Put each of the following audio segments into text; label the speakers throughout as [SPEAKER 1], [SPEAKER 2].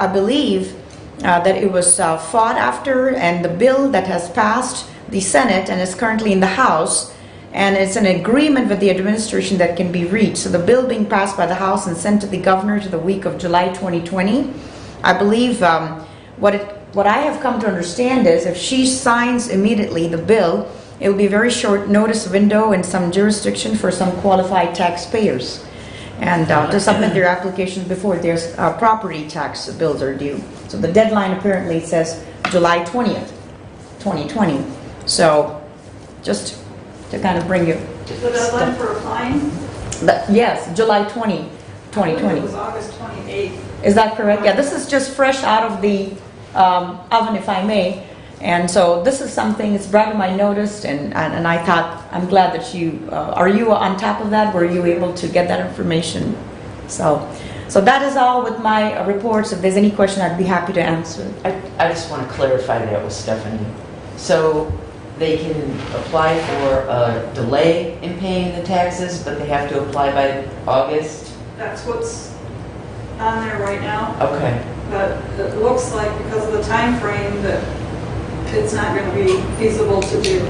[SPEAKER 1] I believe uh, that it was uh, fought after, and the bill that has passed the Senate and is currently in the House, and it's an agreement with the administration that can be reached. So the bill being passed by the House and sent to the governor to the week of July 2020. I believe um, what it, what I have come to understand is if she signs immediately the bill, it will be a very short notice window in some jurisdiction for some qualified taxpayers and uh, to submit their applications before their uh, property tax bills are due. So the deadline apparently says July 20th, 2020. So just to kind of bring you,
[SPEAKER 2] Is the deadline for applying?
[SPEAKER 1] the- yes, July 20,
[SPEAKER 2] I believe It
[SPEAKER 1] 2020.
[SPEAKER 2] was August 28th.
[SPEAKER 1] Is that correct? Yeah, this is just fresh out of the um, oven, if I may. And so this is something, it's brought to my notice, and, and and I thought, I'm glad that you, uh, are you on top of that? Were you able to get that information? So, so that is all with my uh, reports. If there's any question, I'd be happy to answer.
[SPEAKER 3] I, I just want to clarify that with Stephanie. So they can apply for a delay in paying the taxes, but they have to apply by August?
[SPEAKER 2] That's what's on there right now,
[SPEAKER 3] Okay,
[SPEAKER 2] but it looks like because of the time frame that it's not going to be feasible to do.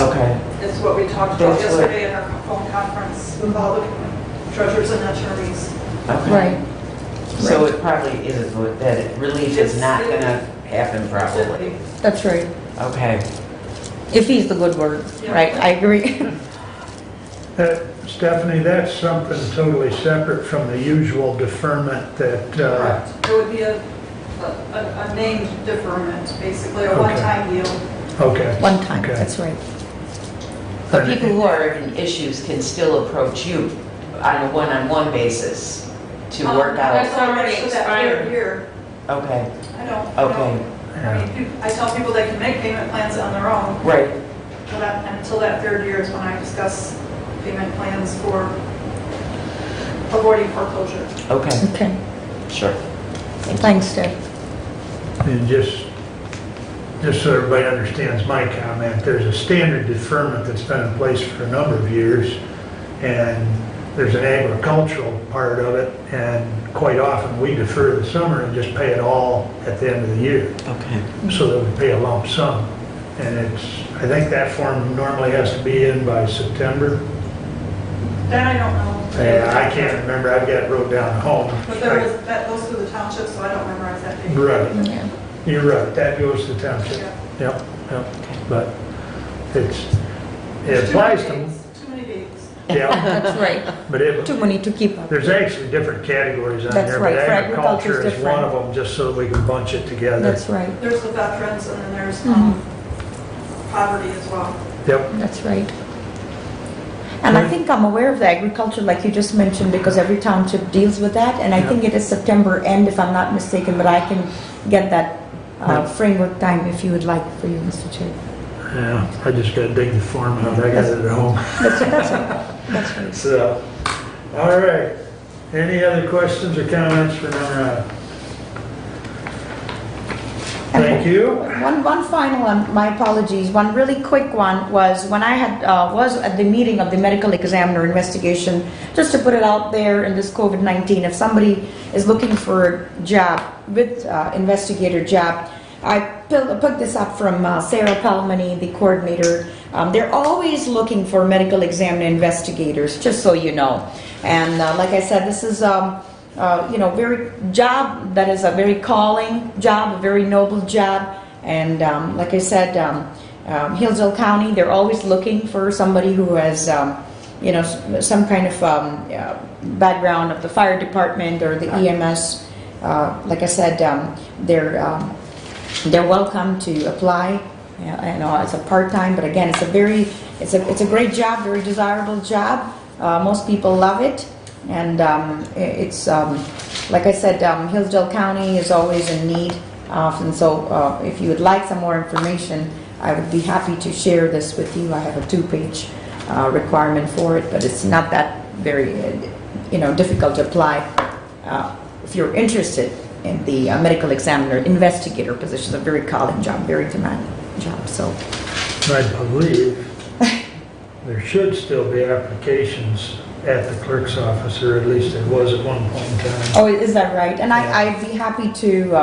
[SPEAKER 3] okay,
[SPEAKER 2] It's what we talked about
[SPEAKER 3] That's what-
[SPEAKER 2] yesterday in our phone conference with all the treasurers and attorneys.
[SPEAKER 3] okay. So it probably is, a- that it- relief is not going to happen probably.
[SPEAKER 1] That's right.
[SPEAKER 3] Okay.
[SPEAKER 1] If he's the good word,
[SPEAKER 2] Yeah.
[SPEAKER 1] right, I agree.
[SPEAKER 4] That- Uh, Stephanie, that's something totally separate from the usual deferment that, uh,
[SPEAKER 2] It would be a, a- a a named deferment, basically, a
[SPEAKER 4] Okay.
[SPEAKER 2] one-time deal.
[SPEAKER 4] okay.
[SPEAKER 1] One time,
[SPEAKER 4] Okay.
[SPEAKER 1] that's right.
[SPEAKER 3] But people who are in issues can still approach you on a one-on-one basis to
[SPEAKER 2] Oh,
[SPEAKER 3] work out.
[SPEAKER 5] that's- already
[SPEAKER 2] So Um, that third
[SPEAKER 5] expired.
[SPEAKER 2] year,
[SPEAKER 3] Okay,
[SPEAKER 2] I don't, I
[SPEAKER 3] okay,
[SPEAKER 2] don't, I
[SPEAKER 4] Yeah.
[SPEAKER 2] mean, I tell people they can make payment plans on their own,
[SPEAKER 3] right,
[SPEAKER 2] But that- until that third year is when I discuss payment plans for avoiding foreclosure.
[SPEAKER 3] okay,
[SPEAKER 1] Okay,
[SPEAKER 3] sure.
[SPEAKER 1] thanks, Steph.
[SPEAKER 4] And just, just so everybody understands my comment, there's a standard deferment that's been in place for a number of years, and there's an agricultural part of it, and quite often we defer the summer and just pay it all at the end of the year,
[SPEAKER 3] Okay.
[SPEAKER 4] so that we pay a lump sum. And it's, I think that form normally has to be in by September.
[SPEAKER 2] That I don't know.
[SPEAKER 4] And I can't remember, I've got it wrote down at home.
[SPEAKER 2] But there was, that goes through the township, so I don't memorize that date.
[SPEAKER 4] Right,
[SPEAKER 1] Yeah.
[SPEAKER 4] you're right, that goes to township.
[SPEAKER 2] Yeah.
[SPEAKER 4] Yep, yep, but it's, it
[SPEAKER 2] There's too many
[SPEAKER 4] applies to,
[SPEAKER 2] dates, Too many dates.
[SPEAKER 4] yeah,
[SPEAKER 1] That's right.
[SPEAKER 4] but it,
[SPEAKER 1] Too many to keep up.
[SPEAKER 4] there's actually different categories on
[SPEAKER 1] That's
[SPEAKER 4] there,
[SPEAKER 1] right,
[SPEAKER 4] but
[SPEAKER 1] for agriculture
[SPEAKER 4] agriculture
[SPEAKER 1] is
[SPEAKER 4] is one of
[SPEAKER 1] different.
[SPEAKER 4] them, just so we can bunch it together.
[SPEAKER 1] That's right,
[SPEAKER 2] There's the veterans, and then there's um, poverty as well.
[SPEAKER 4] Yep,
[SPEAKER 1] that's right. And I
[SPEAKER 4] Right.
[SPEAKER 1] think I'm aware of the agriculture, like you just mentioned, because every township deals with that, and I
[SPEAKER 4] Yeah.
[SPEAKER 1] think it is September end, if I'm not mistaken, but I can get that uh,
[SPEAKER 4] Right.
[SPEAKER 1] framework time if you would like for you, Mr. Chair.
[SPEAKER 4] yeah, I just gotta dig the form out, I got it at home,
[SPEAKER 1] That's right.
[SPEAKER 4] so. All right, any other questions or comments for number nine? Thank you.
[SPEAKER 1] One, one final one, my apologies, one really quick one was when I had, uh, was at the meeting of the medical examiner investigation, just to put it out there in this COVID-19, if somebody is looking for a job with uh, investigator job, I pill- picked this up from uh, Sarah Palmany, the coordinator. Um, They're always looking for medical examiner investigators, just so you know. And uh, like I said, this is, um, uh, you know, very job that is a very calling job, a very noble job. And um, like I said, um, um, Hillsdale County, they're always looking for somebody who has, um, you know, s- some kind of um, uh, background of the fire department or the EMS. Uh, like I said, um, they're um, they're welcome to apply. You know, uh, it's a part-time, but again, it's a very, it's a, it's a great job, very desirable job. Uh, most people love it. And, um, i- it's, um, like I said, um, Hillsdale County is always in need of, and so, uh, if you would like some more information, I would be happy to share this with you. I have a two-page, uh, requirement for it, but it's not that very, uh, you know, difficult to apply uh, if you're interested in the uh, medical examiner investigator position, it's a very calling job, very demanding job, so.
[SPEAKER 4] I believe there should still be applications at the clerk's office, or at least it was at one point in time.
[SPEAKER 1] Oh, is that right? And I, I'd be happy to, uh,